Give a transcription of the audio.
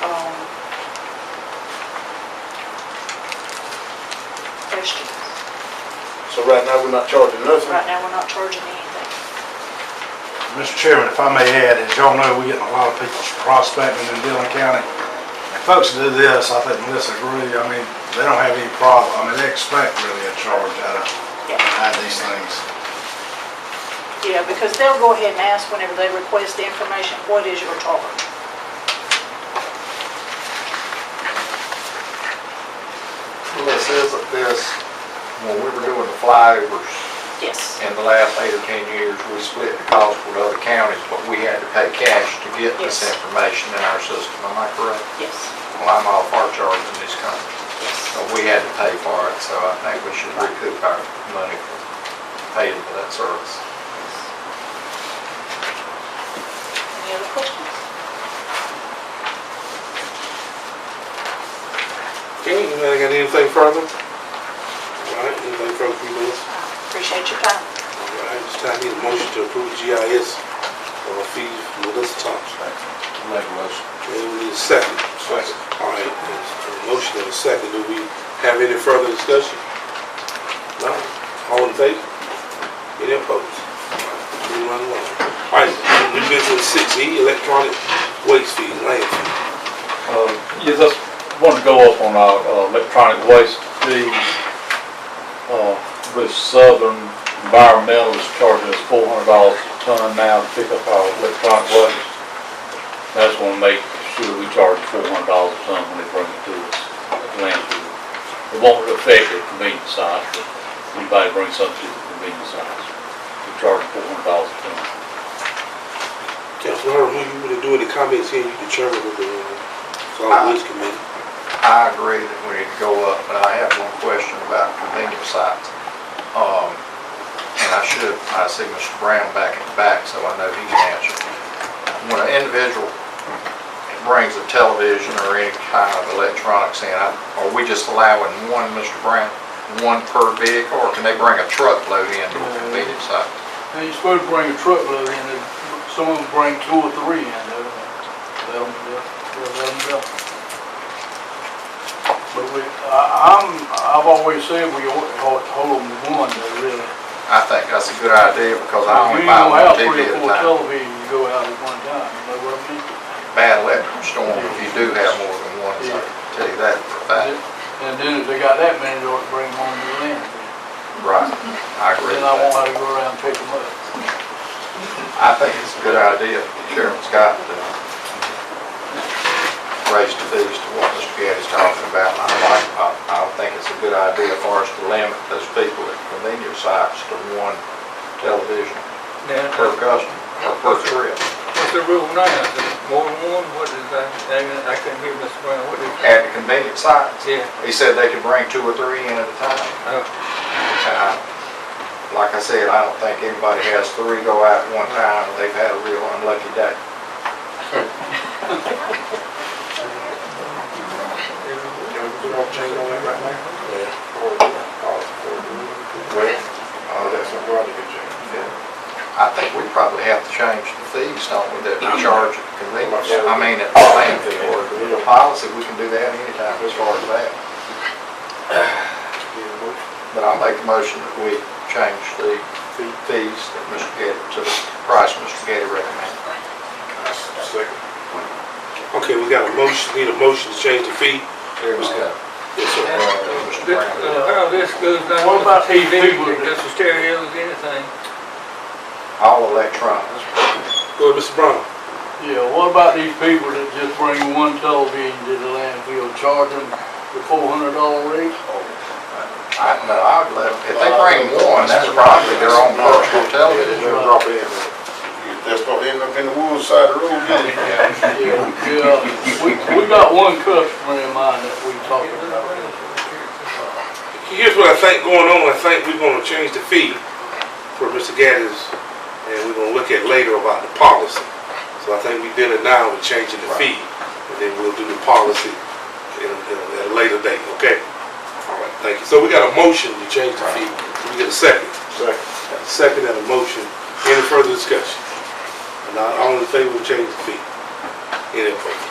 Um, questions. So right now, we're not charging nothing? Right now, we're not charging anything. Mr. Chairman, if I may add, as y'all know, we're getting a lot of people prospecting in Dillon County. And folks do this, I think Melissa agree, I mean, they don't have any problem, I mean, they expect really a charge out of, Yeah, out of these things. yeah, because they'll go ahead and ask whenever they request the information, what is your charge? This isn't this, when we were doing the flyovers Yes, in the last eight or 10 years, we split the cost with other counties, but we had to pay cash to get this Yes. information in our system, am I correct? yes, Well, I'm all for charging this company, yes. but we had to pay for it, so I think we should recoup our money for paying for that service. Any other questions? Okay, anybody got anything further? All right, anything further from you, Melissa? Appreciate your time. All right, it's time need a motion to approve GIS uh, fee for Melissa Thompson. Make a motion. Okay, we need a second. Second. All right, there's a motion and a second. Do we have any further discussion? No? All in favor? Any opposed? All right, we run along. All right, new business six E, electronic waste fee, landfill. Uh, Yeah, just wanted to go up on our uh, electronic waste fees, uh, which Southern Environmental is charging us four hundred dollars a ton now to pick up our electronic waste. That's gonna make sure we charge four hundred dollars a ton when they bring it to us, at the landfill. It won't affect the convenience size, but anybody brings something to the convenience size, we charge four hundred dollars a ton. Councilman Herb, when you want to do any comments here, you determine with the uh, solid waste committee. I agree that we need to go up, but I have one question about convenience sites. Um, And I should, I see Mr. Brown back in the back, so I know he can answer. When an individual brings a television or any kind of electronics in, I- are we just allowing one, Mr. Brown, one per vehicle, or can they bring a truckload in to a convenience site? Now, you're supposed to bring a truckload in, and some of them bring two or three in, though. They'll, they'll, they'll let them go. But we, I, I'm, I've always said we ought to hold, hold them to one, though, really. I think that's a good idea, because I only You ain't buy gonna one have TV three or at a four time. televisions to go out at one time, you know what I mean? Bad electrical storm, if you do have more than one, so I tell you that for a fact. And then if they got that many, they ought to bring one to the land. Right, I agree Then I won't with that. have to go around and pick them up. I think it's a good idea, Chairman Scott, to raise the fees to what Mr. Gaddy's talking about. I like, I, I think it's a good idea for us to limit those people at convenience sites to one television per customer, or per trip. What's the rule now? Is it more than one? What is that? I mean, I couldn't hear Mr. Brown. What is At the convenience sites, Yeah. he said they could bring two or three in at a time. Oh, And I, like I said, I don't think anybody has three go out at one time, and they've had a real unlucky day. Well, uh, Oh, that's a broad I think we probably have to change the fees, don't we, that we charge at the convenience, I mean, at the landfill, or if we need a policy, we can do that anytime as far as that. But I make the motion that we change the fees that Mr. Getty, to the price Mr. Getty recommended. Second. Okay, we got a motion, need a motion to change the fee. There we go. Yes, sir. Uh, Mr. this, Brown. uh, how this goes down with What about the TV, people that- just the stereos, anything? All electronics. Go ahead, Mr. Brown. Yeah, what about these people that just bring one television to the landfill, charge them the four hundred dollar rate? I, no, I would let, if they bring one, that's probably their own personal television. drop in. That's gonna end up in the woods side of the road, Yeah, yeah, we, we got one customer in mind that we talking about. Here's what I think going on, I think we're gonna change the fee for Mr. Gaddis, and we're gonna look at later about the policy. So I think we did it now with changing the fee, and then we'll do the policy in a, in a- at a later date, okay? All right, thank you. So we got a motion to change the fee, we get a second. Second. Second and a motion, any further discussion? And all all in favor of changing the fee? Any opposed?